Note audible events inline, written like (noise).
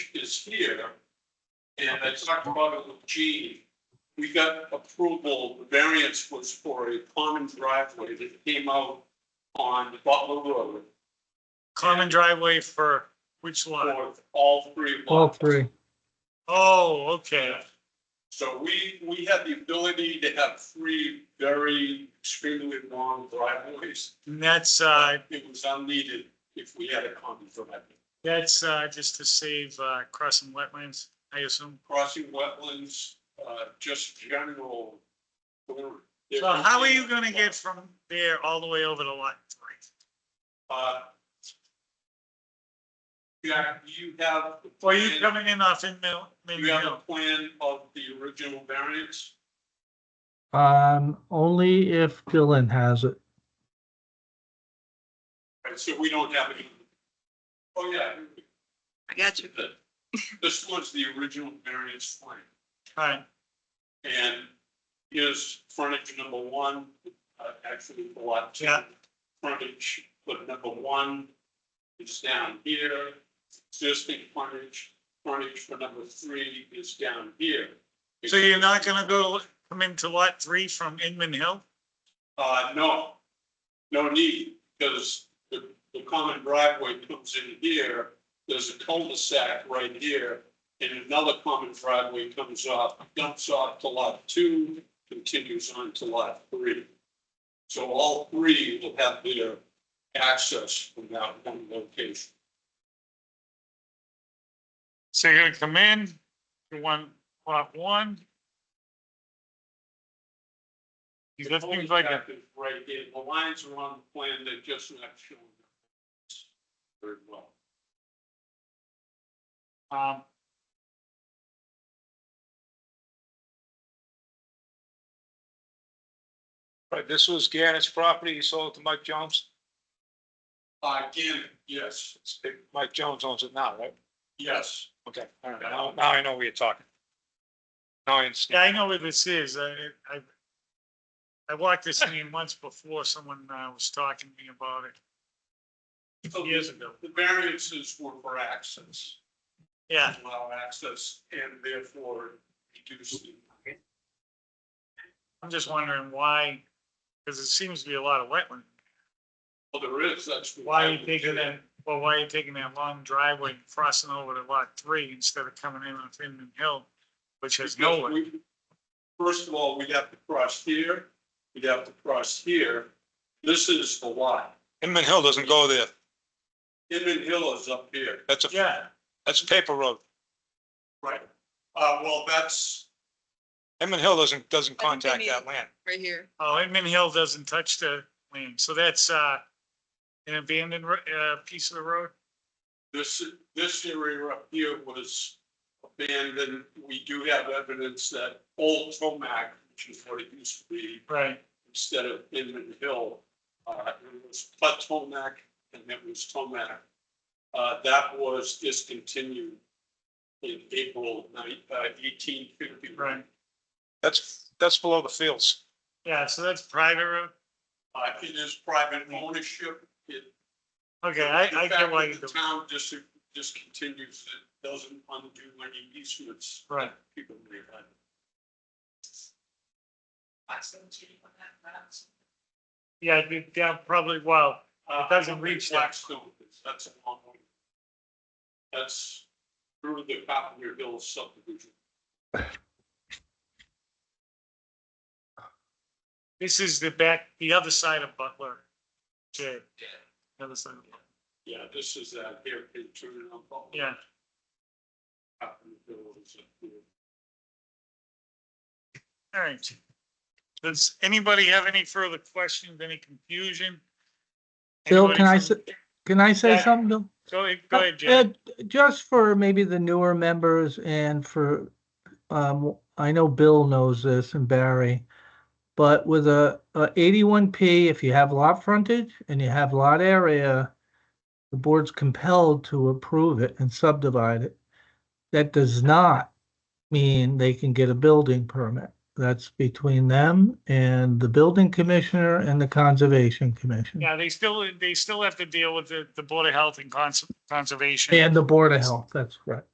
is here. And I talked about it with Gene. We got approval, the variance was for a common driveway that came out on Butler Road Common driveway for which lot? for all three All lots. three. Oh, okay. So we, we had the ability to have three very extremely long driveways. And that's, uh, It was unneeded if we had a common driveway. that's, uh, just to save, uh, crossing wetlands, I assume. Crossing wetlands, uh, just general. So how are you gonna get from there all the way over to lot three? Uh, Jack, you have. the Well, you plan- coming in off in Mill, Minden You have a Hill? plan of the original variance? Um, only if Dylan has it. Right, so we don't have any. Oh, yeah. I got you. the- This was the original variance plan. Right, And is frontage number one, uh, actually a lot two. Yeah. Frontage, but number one is down here, existing frontage, frontage for number three is down here. so you're not gonna go, come into lot three from Inman Hill? Uh, no, no need, because the, the common driveway comes in here, there's a cul-de-sac right here, and another common driveway comes off, dumps off to lot two, continues on to lot three. So all three will have their access from that one location. So you're gonna come in to one, lot one? You got things like that. Right here, the lines are on the plan, they're just not shown. Very well. Um. Right, this was Gannett's property, he sold it to Mike Jones, Uh, Again, yes, It's- Mike Jones owns it now, right? yes. Okay, all right, now, now I know what you're talking. Now I understand. Yeah, I know where this is. I, I, I (laughs) walked this lane once before someone uh, was talking to me about it. Oh, Years ago. The variances were for access, Yeah, allow access, and therefore reduce the. I'm just wondering why, because it seems to be a lot of wetland. Well, there is, that's. what Why are you happened. taking that, well, why are you taking that long driveway and crossing over to lot three instead of coming in on Inman Hill, which has no Because one? we- First of all, we'd have to cross here, we'd have to cross here, this is the lot, Inman Hill doesn't go there, Inman Hill is up here. that's a, Yeah, that's a paper road, Right. Uh, well, that's, Inman Hill doesn't, doesn't I think they contact need- that land. Right here. oh, Inman Hill doesn't touch the land, so that's, uh, an abandoned, ro- uh, piece of the road? this, this area up here was abandoned, we do have evidence that old Tomac, which is what it used to be, Right. instead of Inman Hill. Uh, it was Platomac and it was Tomac. Uh, that was discontinued in April uh, eighteen fifty. Right. That's, that's below the fields. Yeah, so that's private road. Uh, it is private ownership. It. Okay, I, I the get fact why that you do. The town just discontinues it, doesn't undo any easements Right. people may have. Yeah, it'd be- yeah, probably, well, Uh, It doesn't I don't think reach that. Blackstone, is. that's a long way. That's through the Cottonwood Hills subdivision. this is the back, the other side of Butler. Jay. Yeah. The other side. of Butler. Yeah, this is a hairpin turn on. Butler. Yeah, Cottonwood Hills up here. all right. Does anybody have any further questions, any confusion? Bill, Anybody can I from- Can I say Yeah. something? Bill? Go ahead, go ahead, Jay. Uh, Ed, just for maybe the newer members and for, um, I know Bill knows this and Barry. But with a, a eighty-one P, if you have lot frontage and you have lot area, the board's compelled to approve it and subdivide it. That does not mean they can get a building permit. That's between them and the building commissioner and the conservation commission Yeah, they still, they still have to deal with the, the Board of Health and Cons- Conservation. and the board of health. That's right.